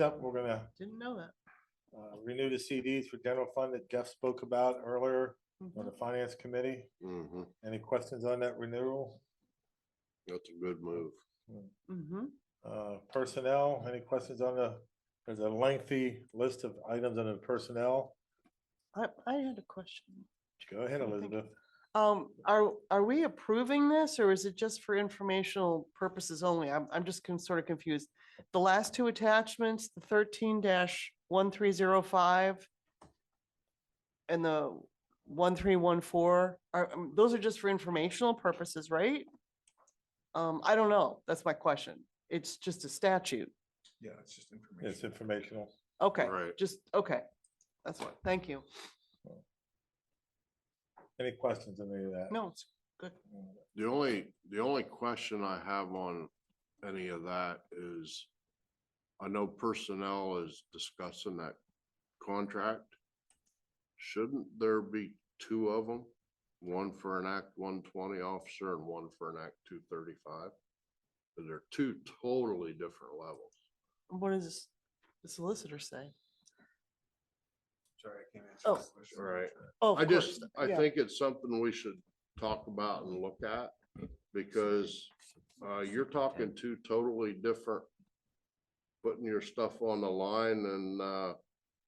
up, we're gonna Didn't know that. uh, renew the CDs for general fund that Jeff spoke about earlier on the Mhm. finance committee. Mm-hmm, Any questions on that renewal? that's a good move. Mhm. Uh, Personnel, any questions on the, there's a lengthy list of items under personnel. I, I had a question. Go ahead, Thank you. Elizabeth. Um, are, are we approving this or is it just for informational purposes only? I'm, I'm just sort of confused. The last two attachments, the thirteen one three zero five and the one three one four, are, um, those are just for informational purposes, right? Um, I don't know. That's my question. It's just a statute. Yeah, it's just information. It's informational. Okay, Right. just, okay. That's what, thank you. Any questions on any of that? No, it's The only, the only question I have on any of that is, I know personnel is discussing that contract. Shouldn't there be two of them? One for an Act one twenty officer and one for an Act two thirty-five? They're two totally different levels. What does the solicitor say? Sorry, I can't answer Oh. that question. Right. Oh, I of course. just, I yeah. think it's something we should talk about and look at, because, uh, you're talking two totally different. Putting your stuff on the line and, uh,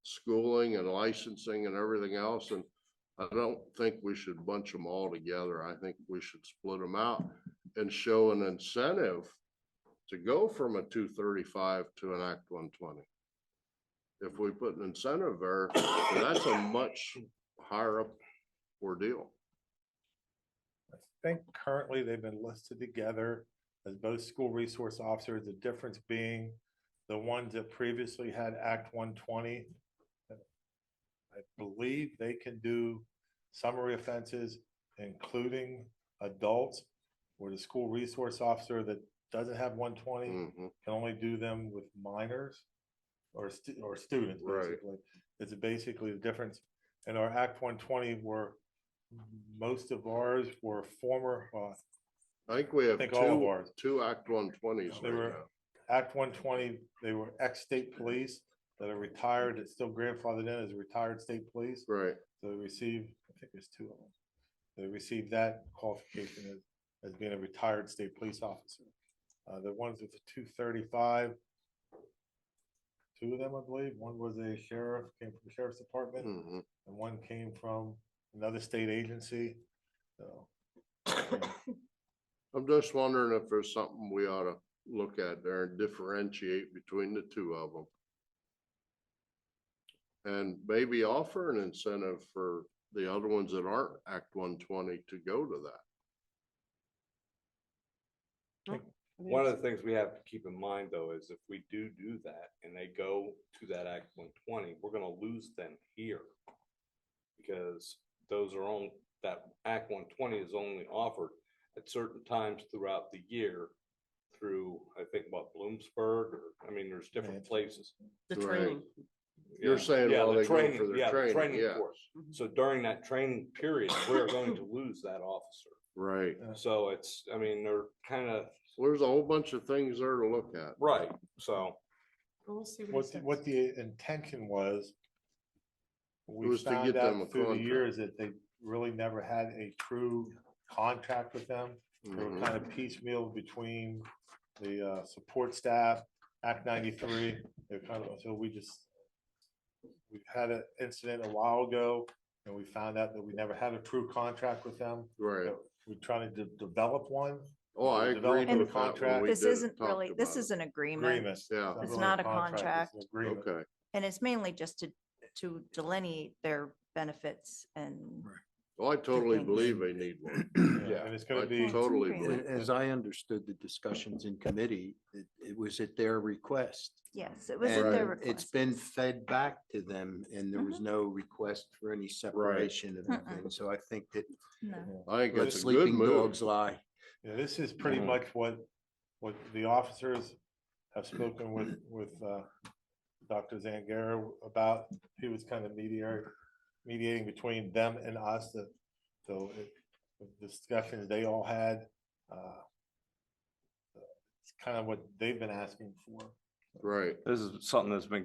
schooling and licensing and everything else, and I don't think we should bunch them all together. I think we should split them out and show an incentive to go from a two thirty-five to an Act one twenty. If we put an incentive there, that's a much higher up ordeal. I think currently they've been listed together as both school resource officers, the difference being the ones that previously had Act one twenty. I believe they can do summary offenses, including adults, where the school resource officer that doesn't have one twenty Mhm. can only do them with minors or stu- or students, Right. basically. It's basically the difference. In our Act one twenty were, most of ours were former, uh, I think we have think all of two, ours. two Act one twenties They right were- now. Act one twenty, they were ex-state police that are retired, that's still grandfathered in as retired state police. Right, So they receive, I think there's two of them. They receive that qualification as, as being a retired state police officer. Uh, the ones with the two thirty-five. Two of them, I believe. One was a sheriff, came from the sheriff's department, Mhm. and one came from another state agency. So, I'm just wondering if there's something we ought to look at there and differentiate between the two of them. And maybe offer an incentive for the other ones that aren't Act one twenty to go to that. One of the things we have to keep in mind, though, is if we do do that and they go to that Act one twenty, we're gonna lose them here. Because those are on, that Act one twenty is only offered at certain times throughout the year through, I think, what, Bloomsburg, or, I mean, there's different Right. places. The Right. training. You're Yeah, saying yeah, while the they go training- for their yeah, the training, yeah. course. Mhm. So during that training period, we're going to lose that officer. Right, So it's, I mean, they're kind of, there's a whole bunch of things there to look at. right, so. Well, We'll see what, what the- he what says. the intention was. We Was to get found them a out through the contract. years that they really never had a true contract with them. They were Mhm. kind of piecemeal between the uh, support staff, Act ninety-three, they're kind of, so we just. We had an incident a while ago, and we found out that we never had a true contract with them. Right, We're trying to de- develop one. oh, I Develop agree a with that. contract. when we This did it, isn't talked really, this about it. is an agreement Agreement. Yeah, It's really not a it's an agreement. okay. and it's mainly just to, to delineate their benefits and Well, I totally things. believe they need one. Yeah, and it's I gonna be. totally agreement. believe. A- As I understood the discussions in committee, it, it was at their request. yes, it was at their And It's request. Mm-hmm. been fed back to them and there was no request for any separation of Mm-mm. anything. So I think that No. I think the that's a good sleeping move. dogs lie. Yeah, this is pretty Mhm. much what, what the officers have spoken with, with, uh, Dr. Zangara about, he was kind of mediator, mediating between them and us, that, so it, the discussions they all had, uh, it's kind of what they've been asking for, right. This is something that's been